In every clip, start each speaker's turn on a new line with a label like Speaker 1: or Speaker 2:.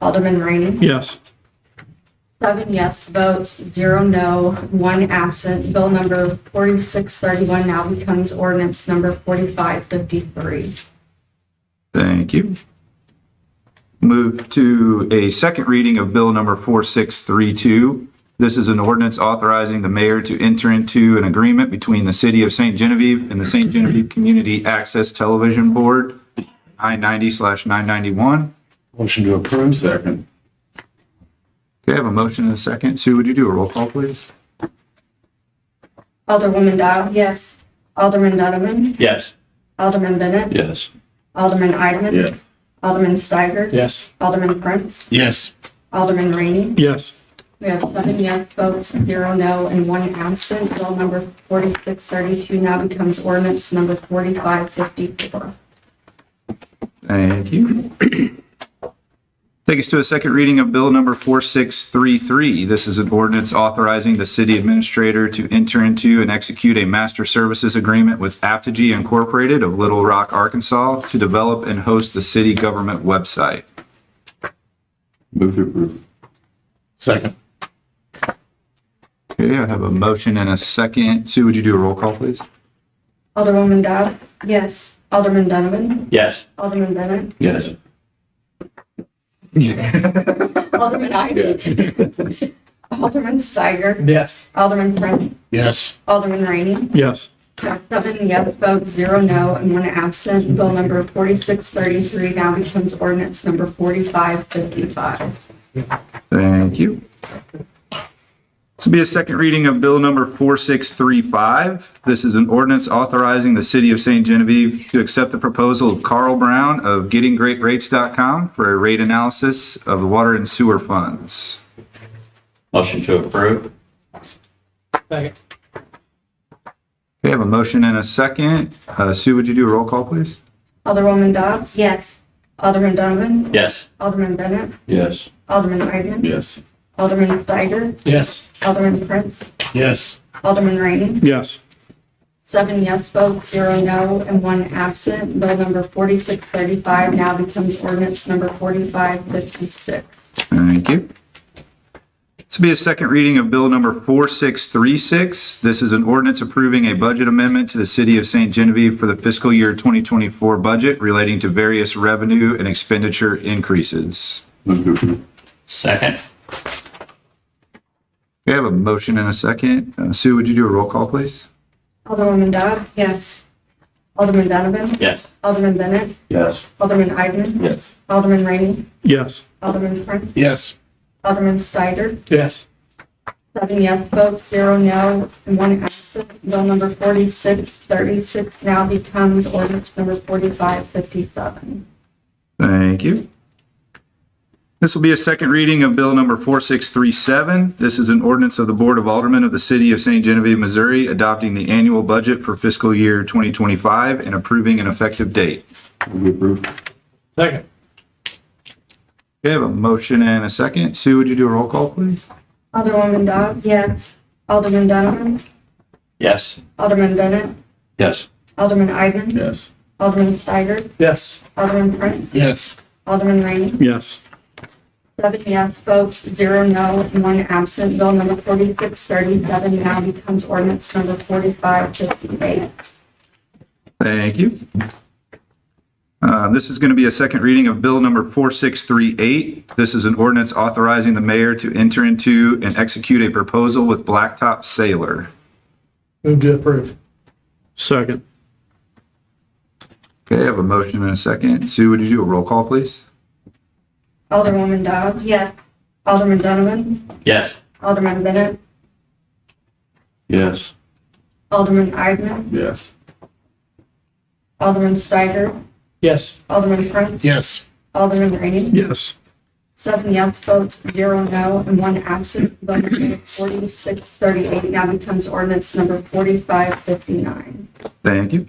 Speaker 1: Alderman Rainey.
Speaker 2: Yes.
Speaker 1: Seven yes votes, zero no, one absent. Bill number 4631 now becomes ordinance number 4553.
Speaker 3: Thank you. Move to a second reading of Bill Number 4632. This is an ordinance authorizing the mayor to enter into an agreement between the City of St. Genevieve and the St. Genevieve Community Access Television Board, I-90/991.
Speaker 4: Motion to approve. Second.
Speaker 3: Okay, I have a motion and a second. Sue, would you do a roll call, please?
Speaker 1: Alderwoman Dobbs. Yes. Alderman Donovan.
Speaker 2: Yes.
Speaker 1: Alderman Bennett.
Speaker 4: Yes.
Speaker 1: Alderman Eidman.
Speaker 4: Yeah.
Speaker 1: Alderman Steiger.
Speaker 2: Yes.
Speaker 1: Alderman Prince.
Speaker 4: Yes.
Speaker 1: Alderman Rainey.
Speaker 2: Yes.
Speaker 1: We have seven yes votes, zero no, and one absent. Bill number 4632 now becomes ordinance number 4554.
Speaker 3: Thank you. Take us to a second reading of Bill Number 4633. This is an ordinance authorizing the city administrator to enter into and execute a master services agreement with Aptigee Incorporated of Little Rock, Arkansas to develop and host the city government website.
Speaker 4: Move to approve. Second.
Speaker 3: Okay, I have a motion and a second. Sue, would you do a roll call, please?
Speaker 1: Alderwoman Dobbs. Yes. Alderman Donovan.
Speaker 2: Yes.
Speaker 1: Alderman Bennett.
Speaker 4: Yes.
Speaker 1: Alderman Eidman. Alderman Steiger.
Speaker 2: Yes.
Speaker 1: Alderman Prince.
Speaker 4: Yes.
Speaker 1: Alderman Rainey.
Speaker 2: Yes.
Speaker 1: Seven yes votes, zero no, and one absent. Bill number 4633 now becomes ordinance number 4555.
Speaker 3: Thank you. This will be a second reading of Bill Number 4635. This is an ordinance authorizing the City of St. Genevieve to accept the proposal of Carl Brown of GettingGreatRates.com for a rate analysis of the water and sewer funds.
Speaker 5: Motion to approve?
Speaker 2: Second.
Speaker 3: We have a motion and a second. Uh, Sue, would you do a roll call, please?
Speaker 1: Alderwoman Dobbs.
Speaker 6: Yes.
Speaker 1: Alderman Donovan.
Speaker 5: Yes.
Speaker 1: Alderman Bennett.
Speaker 4: Yes.
Speaker 1: Alderman Eidman.
Speaker 4: Yes.
Speaker 1: Alderman Steiger.
Speaker 2: Yes.
Speaker 1: Alderman Prince.
Speaker 4: Yes.
Speaker 1: Alderman Rainey.
Speaker 2: Yes.
Speaker 1: Seven yes votes, zero no, and one absent. Bill number 4635 now becomes ordinance number 4556.
Speaker 3: Thank you. This will be a second reading of Bill Number 4636. This is an ordinance approving a budget amendment to the City of St. Genevieve for the fiscal year 2024 budget relating to various revenue and expenditure increases.
Speaker 4: Move to approve.
Speaker 5: Second?
Speaker 3: We have a motion and a second. Uh, Sue, would you do a roll call, please?
Speaker 1: Alderwoman Dobbs.
Speaker 6: Yes.
Speaker 1: Alderman Donovan.
Speaker 5: Yes.
Speaker 1: Alderman Bennett.
Speaker 4: Yes.
Speaker 1: Alderman Eidman.
Speaker 4: Yes.
Speaker 1: Alderman Rainey.
Speaker 2: Yes.
Speaker 1: Alderman Prince.
Speaker 4: Yes.
Speaker 1: Alderman Steiger.
Speaker 2: Yes.
Speaker 1: Seven yes votes, zero no, and one absent. Bill number 4636 now becomes ordinance number 4557.
Speaker 3: Thank you. This will be a second reading of Bill Number 4637. This is an ordinance of the Board of Aldermen of the City of St. Genevieve, Missouri, adopting the annual budget for fiscal year 2025 and approving an effective date.
Speaker 4: Move to approve.
Speaker 2: Second.
Speaker 3: We have a motion and a second. Sue, would you do a roll call, please?
Speaker 1: Alderwoman Dobbs.
Speaker 6: Yes.
Speaker 1: Alderman Donovan.
Speaker 5: Yes.
Speaker 1: Alderman Bennett.
Speaker 4: Yes.
Speaker 1: Alderman Eidman.
Speaker 4: Yes.
Speaker 1: Alderman Steiger.
Speaker 2: Yes.
Speaker 1: Alderman Prince.
Speaker 4: Yes.
Speaker 1: Alderman Rainey.
Speaker 2: Yes.
Speaker 1: Seven yes votes, zero no, and one absent. Bill number 4637 now becomes ordinance number 4558.
Speaker 3: Thank you. Uh, This is going to be a second reading of Bill Number 4638. This is an ordinance authorizing the mayor to enter into and execute a proposal with Blacktop Sailor.
Speaker 2: Move to approve. Second.
Speaker 3: Okay, I have a motion and a second. Sue, would you do a roll call, please?
Speaker 1: Alderwoman Dobbs.
Speaker 6: Yes.
Speaker 1: Alderman Donovan.
Speaker 5: Yes.
Speaker 1: Alderman Bennett.
Speaker 4: Yes.
Speaker 1: Alderman Eidman.
Speaker 4: Yes.
Speaker 1: Alderman Steiger.
Speaker 2: Yes.
Speaker 1: Alderman Prince.
Speaker 4: Yes.
Speaker 1: Alderman Rainey.
Speaker 2: Yes.
Speaker 1: Seven yes votes, zero no, and one absent. Bill number 4638 now becomes ordinance number 4559.
Speaker 3: Thank you.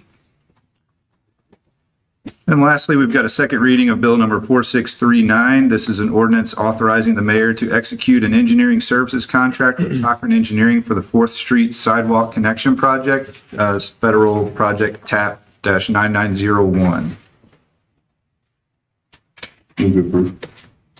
Speaker 3: And lastly, we've got a second reading of Bill Number 4639. This is an ordinance authorizing the mayor to execute an engineering services contract with Cochran Engineering for the Fourth Street Sidewalk Connection Project, uh, Federal Project TAP-9901.
Speaker 4: Move to approve.